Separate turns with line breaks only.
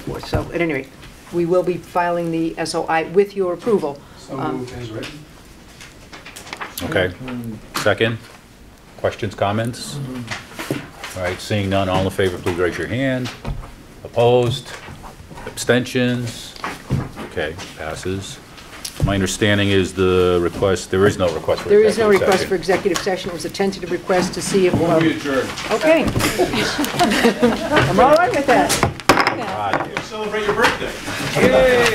forth. So at any rate, we will be filing the SOI with your approval.
So
Um,
moved as written.
Okay. Second? Questions, comments? All right, seeing none, all in favor, please raise your hand. Opposed? Abstentions? Okay, passes. My understanding is the request, there is no request for
There is no
executive
request
session.
for executive session. It was a tentative request to see if,
Move
okay.
adjourned.
I'm all right with that.
Ah,
Celebrate your birthday.